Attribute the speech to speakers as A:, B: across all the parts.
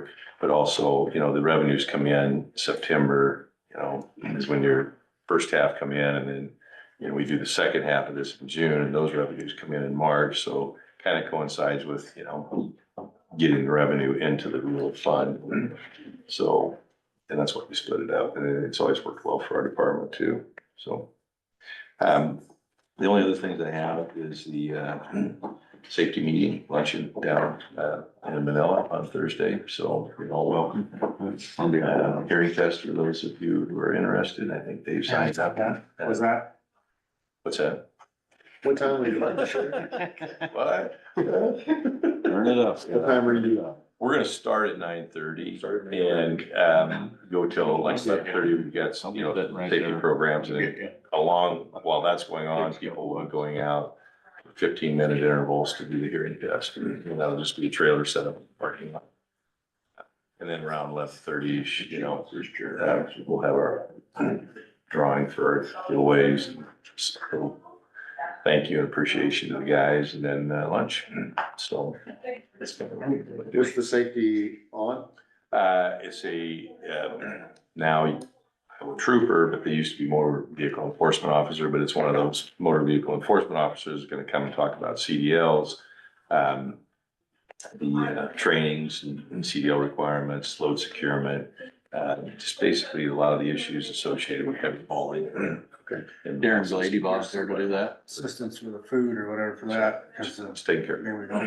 A: year. But also, you know, the revenues come in September, you know, is when your first half come in and then, you know, we do the second half of this in June and those revenues come in in March. So kind of coincides with, you know, getting the revenue into the rural fund. So, and that's why we split it up and it's always worked well for our department too, so. Um, the only other things I have is the, uh, safety meeting luncheon down, uh, in Manila on Thursday, so you're all welcome.
B: I'll be
A: Uh,
B: around.
A: Harry Fest, for those of you who are interested, I think Dave signs up. Uh,
C: Was that,
A: What's that?
C: what time were you?
A: What?
B: Turn it up.
C: What time were you?
A: We're gonna start at nine thirty
C: Start at 9:30.
A: and, um, go till like seven thirty, we've got some, you know,
B: Something right
A: safety
B: there.
A: programs and along, while that's going on, people are going out fifteen minute intervals to do the hearing test. And that'll just be a trailer set up in the parking lot. And then around left thirty, you know, uh, we'll have our drawing for our giveaways. So, Thank you and appreciation to the guys and then uh, lunch. So.
C: Is the safety on?
A: Uh, it's a, um, now I'm a trooper, but they used to be motor vehicle enforcement officer, but it's one of those motor vehicle enforcement officers gonna come and talk about CDLs. Um, the uh, trainings and and CDL requirements, load securement, uh, just basically a lot of the issues associated with heavy hauling.
C: Okay.
A: And-
B: Darren's the lady boss there to do that.
C: Assistance for the food or whatever for that, 'cause, uh,
A: It's taken care of.
C: there we go,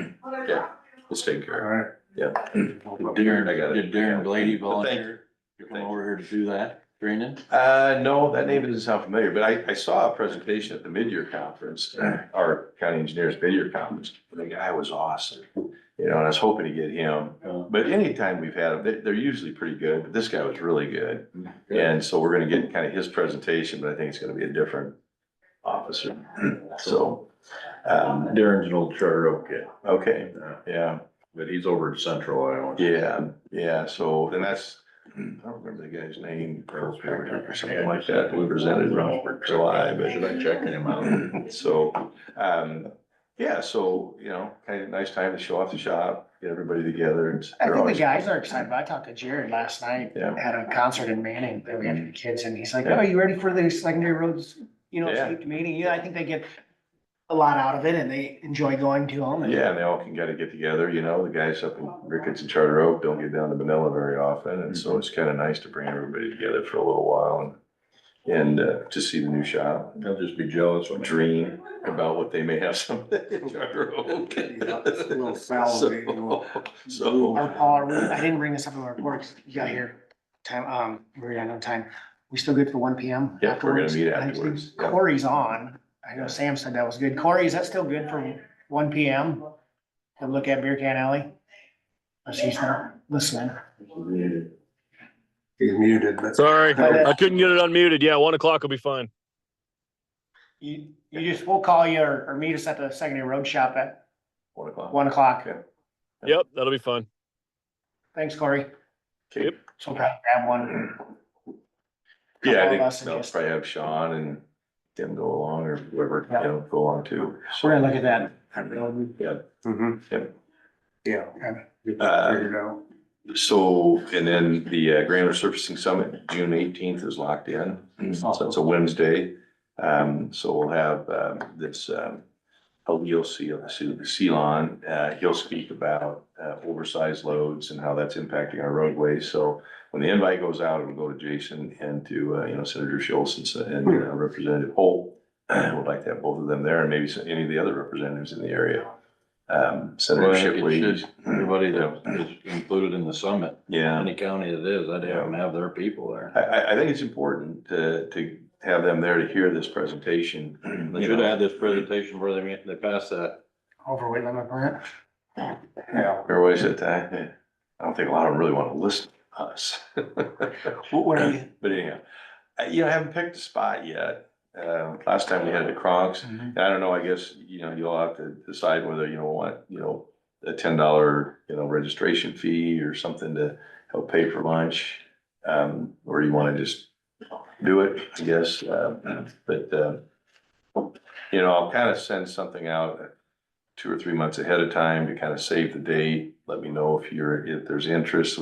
A: Yeah, it's taken
C: all
A: care of.
C: right.
A: Yeah. I got
B: Darren,
A: it.
B: did Darren
A: But
B: Blady
A: thank-
B: volunteer to come over here to do that training?
A: Uh, no, that name doesn't sound familiar, but I, I saw a presentation at the mid-year conference, our county engineers mid-year conference. The guy was awesome, you know, and I was hoping to get him. But anytime we've had them, they, they're usually pretty good, but this guy was really good. And so we're gonna get kind of his presentation, but I think it's gonna be a different officer, so. Um,
D: Darren's an old Charter Oak kid,
A: okay, yeah.
D: but he's over in Central Iowa.
A: Yeah, yeah, so, and that's, I don't remember the guy's name, Earl Perry or something like that, we presented in July,
D: Should I
A: but.
D: check him out?
A: So, um, yeah, so, you know, kind of nice time to show off the shop, get everybody together. It's-
E: I
A: they're
E: think the
A: always-
E: guys are excited. I talked to Jared last night
A: Yeah.
E: at a concert in Manning that we had for the kids and he's like,
A: Yeah.
E: oh, you ready for the secondary roads? You know,
A: Yeah.
E: safety meeting. Yeah, I think they get a lot out of it and they enjoy going to them. and-
A: Yeah, and they all can kind of get together, you know, the guys up in Ricketts and Charter Oak don't get down to Manila very often, and
D: Mm-hmm.
A: so it's kind of nice to bring everybody together for a little while and. And uh, to see the new shop,
D: He'll just be jealous when.
A: dream about what they may have someday in Charter Oak.
C: Yeah, it's a little salivating, a little-
A: So,
E: Or Paul, are we- I didn't bring this up in the report. 'cause You got here. Time, um, we're running out of time. We still good for one P M?
A: Yeah, we're gonna meet afterwards, yeah.
E: Corey's on. I know Sam said that was good. Corey, is that still good for one P M? To look at Beer Can Alley? Unless he's not listening.
C: He's muted, but.
F: Sorry,
E: But, uh,
F: I couldn't get it unmuted. Yeah, one o'clock will be fine.
E: You, you just, we'll call you or, or meet us at the secondary road shop at
A: one o'clock.
E: one o'clock.
A: Okay.
F: Yep, that'll be fine.
E: Thanks, Corey.
A: Yep.
E: So grab grab one.
A: Yeah, I
E: Couple of us
A: think
E: and
A: they'll
E: just-
A: probably have Sean and Tim go along or whoever, you
E: Yeah.
A: know, go along too.
E: We're gonna look at that.
A: Yeah,
C: Mhm.
A: Yep.
C: Yeah.
E: Okay.
C: Get that figured out.
A: so, and then the uh, Granular Surfacing Summit, June eighteenth is locked in.
B: Mm-hmm.
A: So it's a Wednesday. Um, so we'll have, um, this, um, Halil Ceylon, uh, he'll speak about, uh, oversized loads and how that's impacting our roadways. So when the invite goes out, it'll go to Jason and to, uh, you know, Senator Schultz and, Sen- and
B: Hmm.
A: uh, Representative Holt. Would like to have both of them there and maybe some- any of the other representatives in the area. Um,
B: Well,
A: Senator
B: I think it
A: Shipley.
B: should- Everybody that is included in the summit,
A: Yeah.
B: any county it is, I'd have them have their people there.
A: I, I, I think it's important to, to have them there to hear this presentation.
B: They should have had this presentation where they, made- they passed that.
E: Overweight limit grant.
C: Yeah.
A: Or was it, I, I don't think a lot of them really want to listen to us.
E: What, what are you?
A: But anyhow, I- you know, I haven't picked a spot yet. Um, last time we had the Kronks,
E: Mhm.
A: and I don't know, I guess, you know, you'll have to decide whether, you know, what, you know, a ten dollar, you know, registration fee or something to help pay for lunch. Um, or you wanna just do it, I guess, uh, but, uh, you know, I'll kind of send something out two or three months ahead of time to kind of save the date. Let me know if you're, if there's interest,